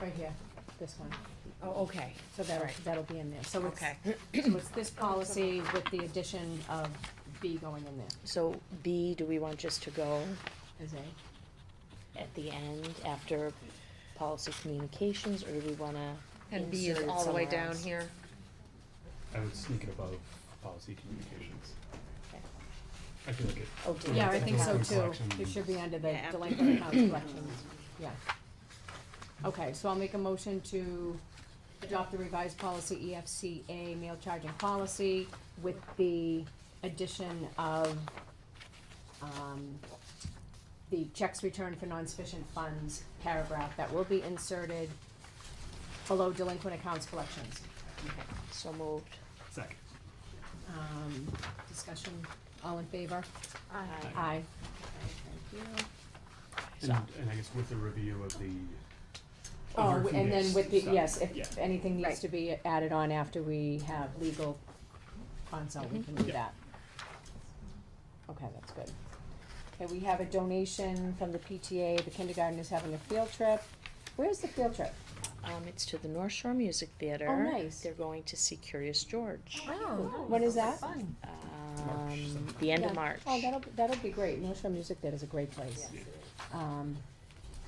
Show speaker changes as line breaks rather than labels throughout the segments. Right here, this one.
Oh, okay,
So that'll,
Right.
that'll be in there. So it's,
okay.
so it's this policy with the addition of B going in there
So B, do we want just to go
as A.
at the end after policy communications, or do we wanna?
And B is
insert it
all the way
somewhere
down
else?
here.
I would sneak it above policy communications.
Okay.
I feel like it.
Oh, do
Yeah,
we-
I think so
Delinquent
too.
collection.
It should be under the
Yeah, after-
delinquent account collections, yeah. Okay, so I'll make a motion to adopt the revised policy E EFCA mail charging policy with the addition of, um, the checks returned for non-sufficient funds paragraph that will be inserted below delinquent accounts collections.
So moved.
Second.
Um, discussion, all in favor?
Aye.
Aye.
And, and I guess with the review of the.
Oh,
of
and then
Phoenix
with the,
stuff.
yes,
Yeah.
if anything needs to be added on after we have legal consult, we can do
Yeah.
that. Okay, that's good. Okay, we have a donation from the PTA, the kindergarten is having a field trip. Where's the field trip?
Um, it's to the North Shore Music Theater.
Oh, nice.
They're going to see Curious George,
Oh.
When is that?
um, the end of
Yeah.
March.
Oh, that'll, that'll be great, North Shore Music Theater's a great place.
Yeah.
Um,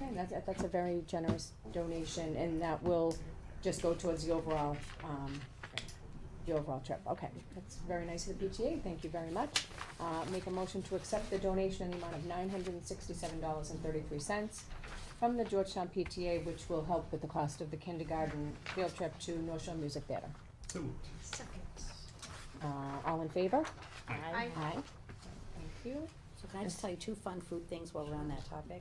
okay, that's, that's a very generous donation, and that will just go towards the overall, um, the overall trip, okay, that's very nice of the PTA, thank you very much. Uh, make a motion to accept the donation in the amount of nine hundred and sixty-seven dollars and thirty-three cents from the Georgetown PTA, which will help with the cost of the kindergarten field trip to North Shore Music Theater.
So moved.
Uh, all in favor?
Aye.
Aye. Thank you.
So can I just tell you two fun food things while we're on that topic?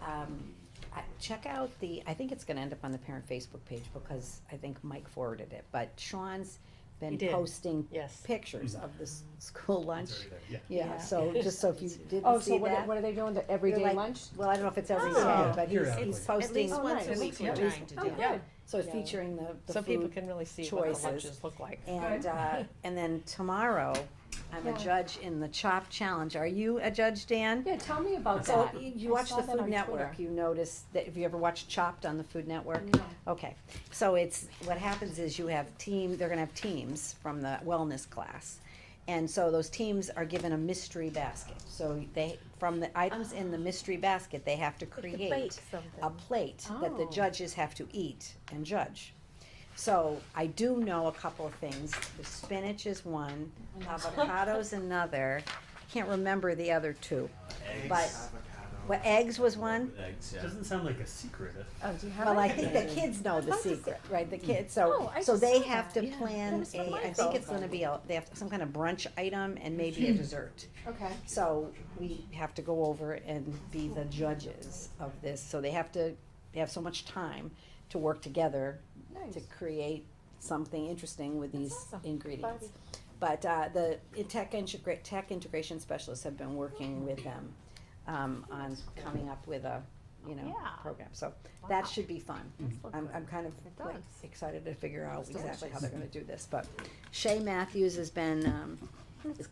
Um, I- Check out the, I think it's gonna end up on the parent Facebook page because I think Mike forwarded it, but Sean's
He
been
did.
posting
Yes.
pictures of the s- school lunch.
Sorry there. Yeah.
Yeah, so just so if you
Oh,
didn't
so
see
what, are-
that.
what are they doing, the everyday
like-
lunch?
Well, I don't know if it's every
Oh.
day, but he's,
Periodically.
he's
At
posting.
Oh, once a nice. week
we're
trying to
Oh,
do.
good.
Yeah.
So it's
Yeah.
featuring the, the
So people
food.
can really see what the
choices.
lunches look like.
And, uh, and then tomorrow, I'm
Yeah.
a judge in the Chop Challenge. Are you a judge, Dan?
Yeah, tell me about
So
that.
you you
I
watch
saw
the
that
Food
on
Network,
Twitter. Mm-hmm.
you notice that, have you ever watched Chopped on the Food Network? Okay, so it's, what happens is you have team, they're gonna have teams from the wellness class. And so those teams are given a mystery basket, so they, from the items in the mystery basket, they have to create
Um,
a plate that the
Oh.
judges have to eat and judge. So I do know a couple of things, the spinach is one, avocado's another, can't remember the other two. But, well, eggs was one,
Doesn't sound like a secret.
Oh,
well, I think the kids know the secret, right, the kids, so,
Oh, I
so
just
they
saw
have to
that. That
plan
was
a,
from my
I think it's gonna be a, they have some kind of brunch item and maybe
Hmm.
a dessert.
Okay.
So we have to go over and be the judges of this, so they have to, they have so much time to work together to
Nice.
create something interesting with these
awesome.
ingredients. But, uh, the tech integra- tech integration specialists have been working with them, um, on coming up with a, you know, program, so that should be fun. I'm, I'm kind of like excited to figure out exactly how they're gonna do this, but Shay Matthews has been, um,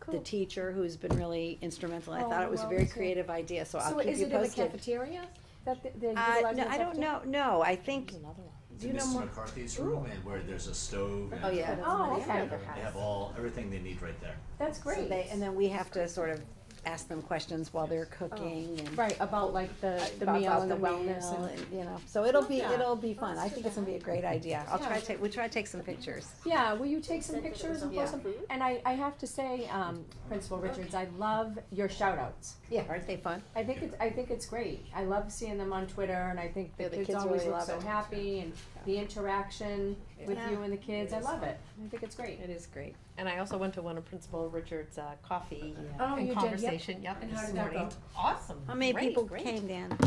the teacher who's been really instrumental. I
Oh,
thought it was a
well,
very
it's a-
creative idea, so I'll
So
keep
is
you
it in the
posted.
cafeteria that th- they
Uh,
utilize
no,
the
I don't
cafeteria?
know, no, I think,
There's another one.
do you know
Mrs.
more?
McCarthy's room and where there's a stove and
Oh, yeah.
Oh, okay,
they have all everything they need right there.
that's
So
great.
they- And then we have to sort of ask them questions while they're cooking and.
Right, about like the, the
about-
meal
about
and the wellness
meal
and,
You know, so it'll be,
Yeah.
it'll be fun. I think it's gonna be a great idea. I'll
Yeah.
try to take, we'll try to take some pictures.
yeah, will you take some pictures and
Yeah.
post them? And I, I have to say, um, Principal Richards, I love your shout outs.
Yeah, aren't they fun?
I think it's, I think it's great. I love seeing them on Twitter and I think
Yeah,
the
the
kids
kids
always
really
look
love
so
it.
happy and the interaction with
Yeah.
you and the kids, I love it. I think it's great.
It is great.
And I also went to one of Principal Richard's uh, coffee
Oh, you did,
and
yep.
conversation, yep,
And how
this
did that
morning.
go?
Awesome.
How many
Great,
people
great.
came, Dan?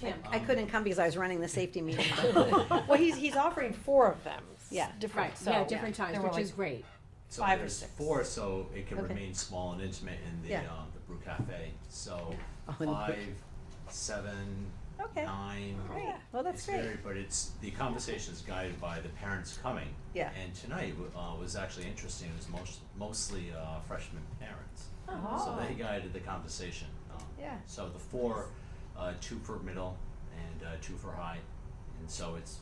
Kim.
I
Um,
couldn't come because I was running the safety meeting.
Well, he's, he's offering four of them. s-
Yeah.
Different,
Right,
so.
yeah, different times,
There were
which
like
is great.
So
Five or
there's
six.
four, so it can
Okay.
remain small and intimate in the
Yeah.
um, the brew cafe. So
Oh, in the brew-
five, seven,
Okay.
nine.
Great. Well, that's
it's
great.
varied, but it's the conversation is guided by the parents coming.
Yeah.
And tonight uh, was actually interesting. It was most, mostly uh, freshman parents.
Oh.
Oh.
So they guided the conversation. Um,
Yeah.
So the four, uh, two for middle and uh, two for high, and so it's